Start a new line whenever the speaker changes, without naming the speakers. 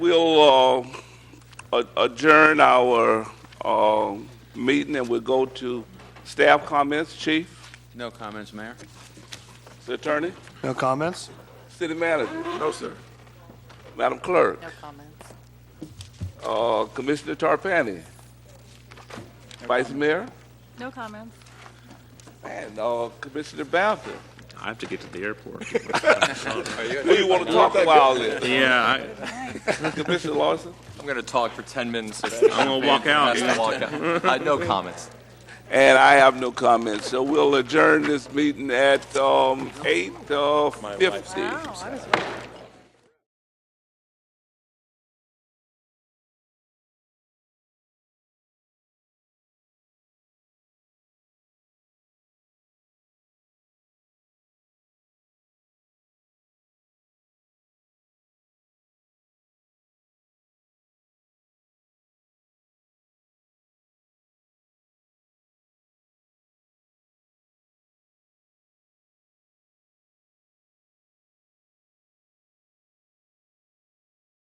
We'll uh, a- adjourn our uh, meeting and we'll go to staff comments. Chief,
No comments, Mayor.
attorney,
No comments?
city manager? No, sir. Madam Clerk,
No comments.
uh, Commissioner Tarpani, Vice Mayor,
No comments.
and uh, Commissioner Bowser.
I have to get to the airport.
Who you want to talk about all this?
yeah,
Commissioner Lawson?
I'm going to talk for 10 minutes.
I'm gonna walk out.
That's the walk out. Uh, no comments.
And I have no comments, so we'll adjourn this meeting at um, 8:50.
Wow, I was right.